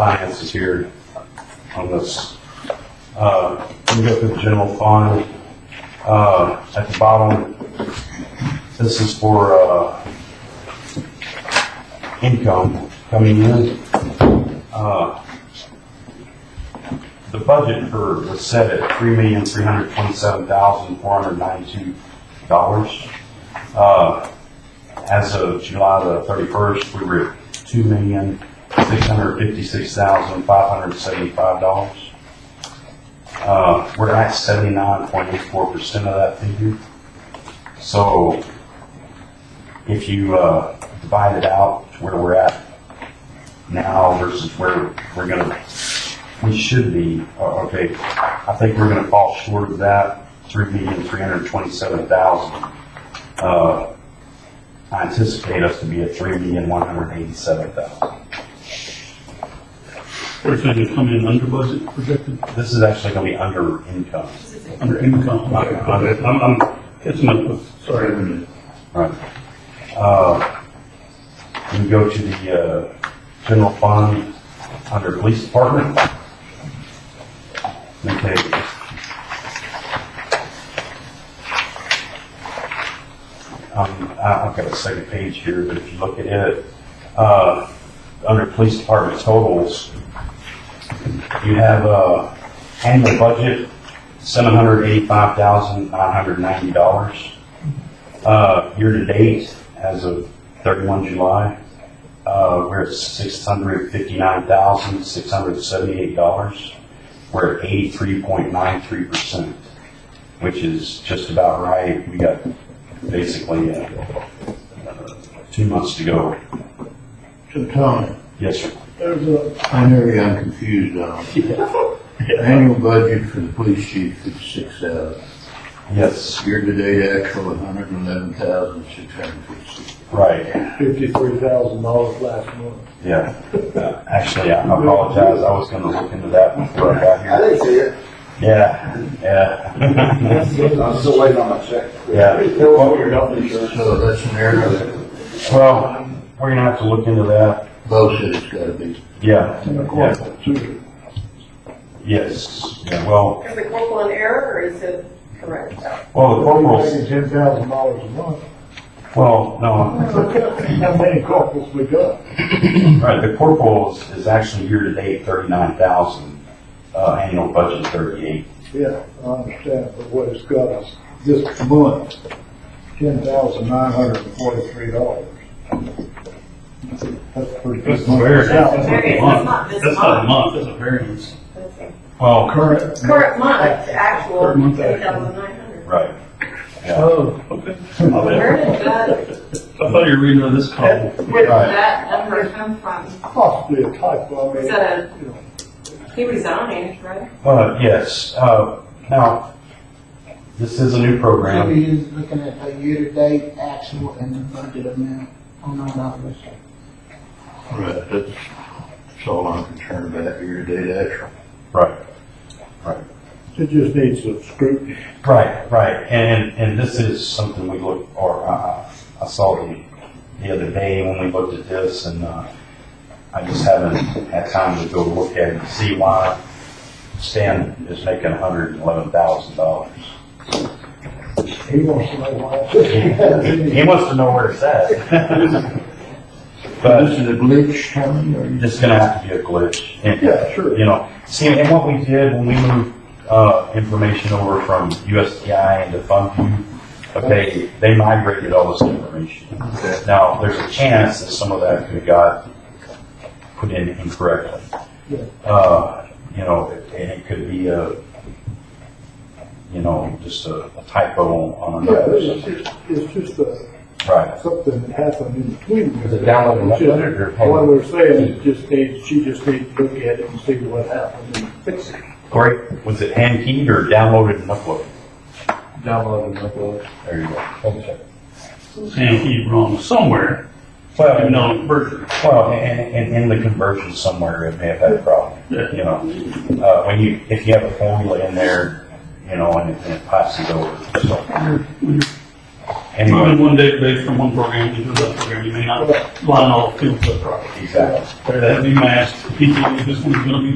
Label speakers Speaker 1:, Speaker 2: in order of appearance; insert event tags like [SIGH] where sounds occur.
Speaker 1: finance is here on this. Uh, we go through the general fund, uh, at the bottom, this is for, uh, income coming in. Uh, The budget for, was set at three million, three hundred twenty-seven thousand, four hundred ninety-two dollars. Uh, as of July the thirty-first, we were at two million, six hundred fifty-six thousand, five hundred seventy-five dollars. Uh, we're at seventy-nine point eight four percent of that figure. So if you, uh, divide it out to where we're at now versus where we're gonna, we should be, uh, okay, I think we're gonna fall short of that, three million, three hundred twenty-seven thousand. Uh, I anticipate us to be at three million, one hundred eighty-seven thousand.
Speaker 2: Or is that gonna come in under budget projected,
Speaker 1: This is actually gonna be under income.
Speaker 2: under income?
Speaker 1: Okay.
Speaker 2: Okay, I'm, I'm catching up with, sorry.
Speaker 1: Right. Uh, we go to the, uh, general fund under police department. Okay. Um, I- I've got a second page here, but if you look at it, uh, under police department totals, you have, uh, annual budget, seven hundred eighty-five thousand, nine hundred ninety dollars. Uh, year-to-date, as of 31 July, uh, we're at $659,678. We're at 83.93%, which is just about right. We got basically uh, uh, two months to go.
Speaker 3: So Tony,
Speaker 1: Yes, sir.
Speaker 3: there's a, I know you're I'm confused on. The Annual budget for the police chief is six thousand.
Speaker 1: Yes,
Speaker 3: Year-to-date actual, one hundred and eleven thousand, six hundred fifty.
Speaker 1: right,
Speaker 4: fifty-three thousand dollars last month.
Speaker 1: yeah. Uh, Actually, I apologize. I was gonna look into that before I got
Speaker 5: I
Speaker 1: here.
Speaker 5: didn't see it.
Speaker 1: Yeah, yeah.
Speaker 5: I'm still waiting on my check.
Speaker 1: Yeah.
Speaker 5: There was your health insurance.
Speaker 3: So that's an error that
Speaker 1: Well, we're gonna have to look into that.
Speaker 3: both said it's gotta be.
Speaker 1: Yeah, yeah,
Speaker 4: too.
Speaker 1: yes, yeah, well,
Speaker 6: Is the corporal an error or is it correct?
Speaker 1: well, the corporals,
Speaker 4: Making ten thousand dollars a month.
Speaker 1: well, no,
Speaker 4: How many corporals we got?
Speaker 1: right, the corporals is actually year-to-date thirty-nine thousand, uh, annual budget thirty-eight.
Speaker 4: Yeah, I understand, but what it's got us this month, ten thousand nine hundred and forty-three dollars. That's pretty good.
Speaker 2: That's very-
Speaker 4: Now,
Speaker 6: Variance, that's not this
Speaker 2: That's not a month,
Speaker 6: month.
Speaker 2: that's a variance.
Speaker 1: Well,
Speaker 4: Current.
Speaker 6: Current month, the actual
Speaker 2: Current month,
Speaker 6: ten
Speaker 2: actual.
Speaker 6: thousand nine hundred.
Speaker 1: right,
Speaker 4: Oh,
Speaker 2: Okay. My bad.
Speaker 6: Where did that,
Speaker 2: I thought you were reading on this column.
Speaker 6: where did
Speaker 1: Right.
Speaker 6: that number come from?
Speaker 4: possibly a typo, I mean.
Speaker 6: Is that
Speaker 4: you know,
Speaker 6: a, he resigned, right?
Speaker 1: uh, yes, uh, now, this is a new
Speaker 7: So
Speaker 1: program,
Speaker 7: you're looking at the year-to-date actual and the budget amount on our dollars.
Speaker 3: Right, that's, that's all I'm concerned about, year-to-date actual.
Speaker 1: right,
Speaker 4: It just needs some scrutiny.
Speaker 1: right, right, and, and this is something we look, or, uh, I saw the, the other day when we looked at this, and, uh, I just haven't had time to go look at it and see why Stan is making hundred and eleven thousand dollars.
Speaker 4: He wants to know why.
Speaker 1: [LAUGHS] He wants to know where it's
Speaker 4: [LAUGHS]
Speaker 1: at.
Speaker 3: This
Speaker 1: But
Speaker 3: is a glitch, Tony, or you?
Speaker 1: it's gonna have to be a glitch. And,
Speaker 4: Yeah, sure.
Speaker 1: You know, see, and what we did when we moved, uh, information over from USDI into FundView, okay, they migrated all this information.
Speaker 3: Okay.
Speaker 1: Now, there's a chance that some of that could have got put in incorrectly.
Speaker 4: Yeah.
Speaker 1: Uh, you know, and it could be a, you know, just a a typo on a
Speaker 4: Yeah,
Speaker 1: number. or
Speaker 4: it's
Speaker 1: something.
Speaker 4: just, it's just a.
Speaker 1: Right,
Speaker 4: something that happened in between.
Speaker 1: Is it downloaded and
Speaker 4: It's just-
Speaker 1: uploaded, or-
Speaker 4: What we're saying is just needs, she just needs to look at it and see what happened and fix it.
Speaker 1: Corey, was it hand keyed or downloaded and uploaded?
Speaker 3: Download and upload.
Speaker 1: There you go.
Speaker 2: Sam, he wrong somewhere,
Speaker 1: Well,
Speaker 2: even though it's version.
Speaker 1: Well, and, and in the conversion somewhere, it may have had a problem, you know. Uh, when you, if you have a formula in there, you know, and it, and it passes over, so.
Speaker 2: When you're Moving
Speaker 1: Anyway,
Speaker 2: one database from one program to another program, you may not line all the fields up properly.
Speaker 1: exactly.
Speaker 2: That'd be masked, people, this one's gonna be